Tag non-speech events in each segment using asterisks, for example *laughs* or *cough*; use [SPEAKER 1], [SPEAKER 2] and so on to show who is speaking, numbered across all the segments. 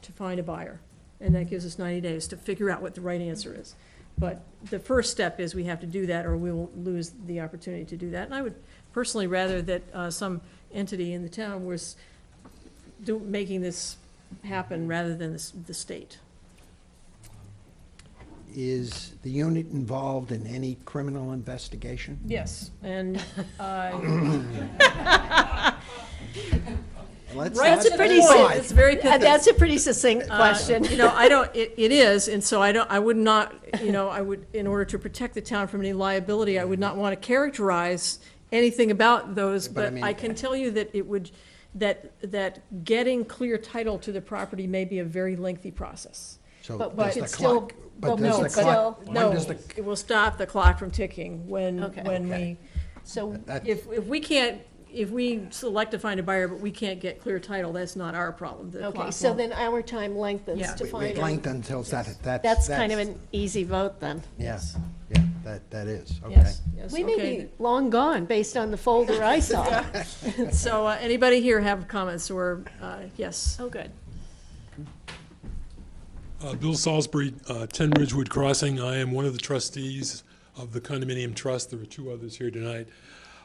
[SPEAKER 1] to find a buyer. And that gives us 90 days to figure out what the right answer is. But the first step is we have to do that, or we will lose the opportunity to do that. And I would personally rather that uh, some entity in the town was do, making this happen rather than the, s- the state.
[SPEAKER 2] Is the unit involved in any criminal investigation?
[SPEAKER 1] Yes. And, uh,
[SPEAKER 2] Let's
[SPEAKER 1] right
[SPEAKER 2] not
[SPEAKER 1] to
[SPEAKER 3] That's a
[SPEAKER 1] the
[SPEAKER 3] pretty
[SPEAKER 1] point.
[SPEAKER 3] simple-
[SPEAKER 1] It's very
[SPEAKER 3] Uh,
[SPEAKER 1] pithy.
[SPEAKER 3] That's a pretty succinct
[SPEAKER 1] Uh,
[SPEAKER 3] question.
[SPEAKER 1] You know, I don't, it, it is, and so I don't, I would not, you know, I would, in order to protect the town from any liability, I would not want to characterize anything about those,
[SPEAKER 2] But I
[SPEAKER 1] but
[SPEAKER 2] mean-
[SPEAKER 1] I can tell you that it would, that, that getting clear title to the property may be a very lengthy process.
[SPEAKER 2] So
[SPEAKER 3] But
[SPEAKER 2] does
[SPEAKER 3] it's
[SPEAKER 2] the
[SPEAKER 3] still-
[SPEAKER 2] clock-
[SPEAKER 3] but
[SPEAKER 2] But
[SPEAKER 3] no,
[SPEAKER 2] does the
[SPEAKER 3] it's
[SPEAKER 2] clock,
[SPEAKER 3] still-
[SPEAKER 2] when
[SPEAKER 1] No,
[SPEAKER 2] does the,
[SPEAKER 1] it will stop the clock from ticking when,
[SPEAKER 3] Okay.
[SPEAKER 1] when we,
[SPEAKER 2] Okay.
[SPEAKER 3] So,
[SPEAKER 2] that-
[SPEAKER 1] if, if we can't, if we select to find a buyer, but we can't get clear title, that's not our problem. The
[SPEAKER 3] okay,
[SPEAKER 1] clock
[SPEAKER 3] so
[SPEAKER 1] won't-
[SPEAKER 3] then our time lengthens
[SPEAKER 1] Yeah.
[SPEAKER 3] to
[SPEAKER 2] we- we
[SPEAKER 3] find out.
[SPEAKER 2] blanked until that, that's.
[SPEAKER 3] That's kind of an easy vote then.
[SPEAKER 2] Yeah,
[SPEAKER 1] Yes.
[SPEAKER 2] yeah, that, that is, okay.
[SPEAKER 1] Yes, yes,
[SPEAKER 3] We may
[SPEAKER 1] okay.
[SPEAKER 3] be long gone based on the folder I
[SPEAKER 1] *laughs*
[SPEAKER 3] saw.
[SPEAKER 1] So, uh, anybody here have comments or, uh, yes?
[SPEAKER 3] Oh, good.
[SPEAKER 4] Uh, Bill Salisbury, uh, 10 Ridgewood Crossing. I am one of the trustees of the condominium trust. There are two others here tonight.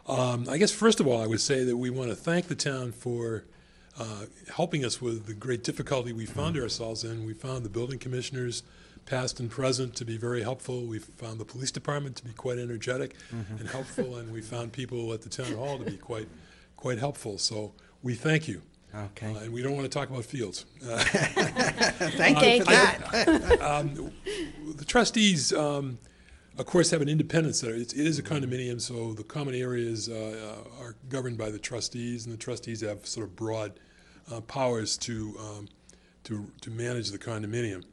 [SPEAKER 4] Um, I guess, first of all, I would say that we want to thank the town for uh, helping us with the great difficulty we found ourselves in. We found the building commissioners, past and present, to be very helpful. We found the police department to be quite energetic and helpful, and we found people at the town hall to be quite, quite helpful. So we thank you.
[SPEAKER 2] Okay.
[SPEAKER 4] Uh, And we don't want to talk about fields.
[SPEAKER 2] Thank you
[SPEAKER 3] Thank
[SPEAKER 2] for
[SPEAKER 3] you.
[SPEAKER 2] that.
[SPEAKER 4] the trustees, um, of course, have an independent center. It's, it is a condominium, so the common areas uh, uh, are governed by the trustees, and the trustees have sort of broad uh, powers to, um, to, to manage the condominium.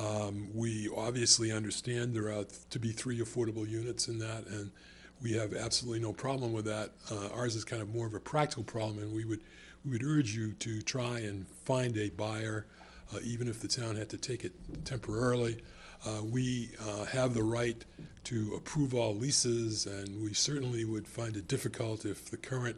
[SPEAKER 4] Um, we obviously understand there are to be three affordable units in that, and we have absolutely no problem with that. Uh, ours is kind of more of a practical problem, and we would, we would urge you to try and find a buyer, uh, even if the town had to take it temporarily. Uh, we uh, have the right to approve all leases, and we certainly would find it difficult if the current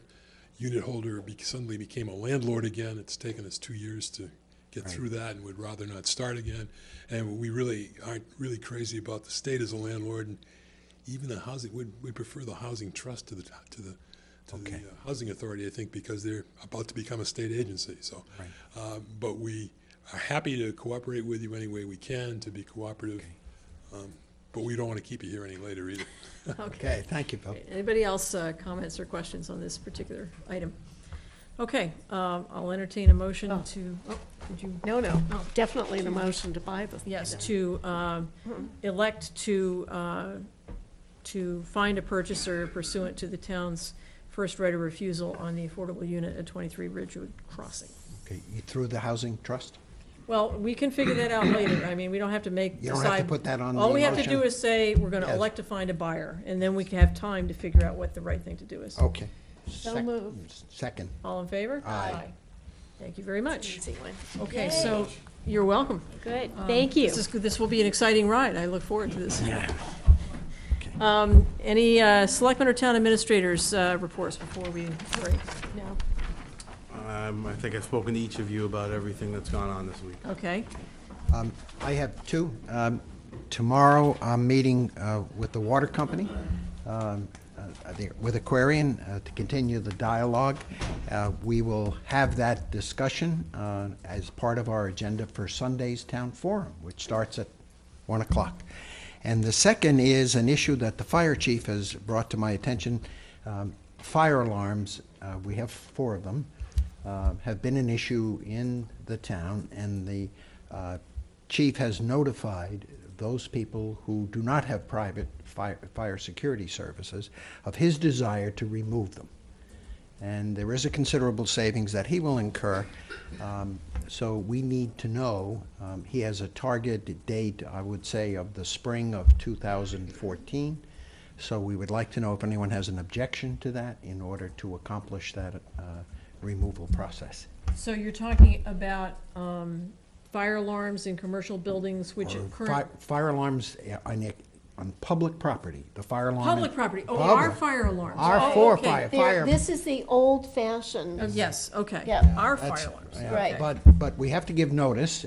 [SPEAKER 4] unit holder be- suddenly became a landlord again. It's taken us two years to get through that and would rather not start again. And we really aren't really crazy about the state as a landlord. And even the housing, we'd, we prefer the housing trust to the, to the, to the uh, housing authority, I think, because they're about to become a state agency, so. uh, But we are happy to cooperate with you any way we can, to be cooperative. Um, But we don't want to keep you here any later either.
[SPEAKER 2] Okay, thank you, Bill.
[SPEAKER 1] Anybody else, uh, comments or questions on this particular item? Okay, um, I'll entertain a motion
[SPEAKER 3] Oh.
[SPEAKER 1] to, oh, did you,
[SPEAKER 3] No, no,
[SPEAKER 1] Oh.
[SPEAKER 3] definitely the motion to buy the.
[SPEAKER 1] yes, to, um, elect to, uh, to find a purchaser pursuant to the town's first right of refusal on the affordable unit at twenty-three Ridgewood Crossing.
[SPEAKER 2] Okay, you through the housing trust?
[SPEAKER 1] Well, we can figure that out later. I mean, we don't have to make,
[SPEAKER 2] You don't have to
[SPEAKER 1] decide-
[SPEAKER 2] put that on
[SPEAKER 1] All
[SPEAKER 2] the
[SPEAKER 1] we have to
[SPEAKER 2] motion?
[SPEAKER 1] do is say, we're gonna
[SPEAKER 2] Yes.
[SPEAKER 1] elect to find a buyer, and then we can have time to figure out what the right thing to do is.
[SPEAKER 2] Okay.
[SPEAKER 3] So
[SPEAKER 2] Sec-
[SPEAKER 3] moved.
[SPEAKER 2] Second,
[SPEAKER 1] All in favor?
[SPEAKER 2] Oh. Aye.
[SPEAKER 1] Thank you very much.
[SPEAKER 3] Easy one.
[SPEAKER 1] Okay, so, you're welcome.
[SPEAKER 3] Good,
[SPEAKER 1] Um,
[SPEAKER 3] thank you.
[SPEAKER 1] This is, good. this will be an exciting ride. I look forward to this. *laughs* Um, any, uh, selectmen or town administrators, uh, reports before we break?
[SPEAKER 3] No.
[SPEAKER 5] Um, I think I've spoken to each of you about everything that's gone on this week.
[SPEAKER 1] Okay,
[SPEAKER 2] Um, I have two. Um, Tomorrow, I'm meeting uh, with the water company, um, uh, I think with Aquarian, uh, to continue the dialogue. Uh, We will have that discussion uh, as part of our agenda for Sunday's town forum, which starts at 1 o'clock. And the second is an issue that the fire chief has brought to my attention. Um, Fire alarms, uh, we have four of them, uh, have been an issue in the town, and the uh, chief has notified those people who do not have private fire, fire security services of his desire to remove them and there is a considerable savings that he will incur. Um, So we need to know, um, he has a target date, I would say, of the spring of 2014. So we would like to know if anyone has an objection to that in order to accomplish that uh, removal process.
[SPEAKER 1] so you're talking about, um, fire alarms in commercial buildings, which
[SPEAKER 2] Or
[SPEAKER 1] current.
[SPEAKER 2] fi- Fire alarms uh, on, it- on public property, the fire alarm. in-
[SPEAKER 1] Public property, oh, our
[SPEAKER 2] Public.
[SPEAKER 1] fire alarms.
[SPEAKER 2] Our
[SPEAKER 1] Oh,
[SPEAKER 2] four
[SPEAKER 1] okay.
[SPEAKER 2] fire-
[SPEAKER 3] There, this is the old fashioned.
[SPEAKER 1] Oh, Yes, okay.
[SPEAKER 3] Yeah.
[SPEAKER 1] Our
[SPEAKER 2] That's-
[SPEAKER 1] fire alarms.
[SPEAKER 2] yeah,
[SPEAKER 3] Right.
[SPEAKER 2] But, but we have to give notice,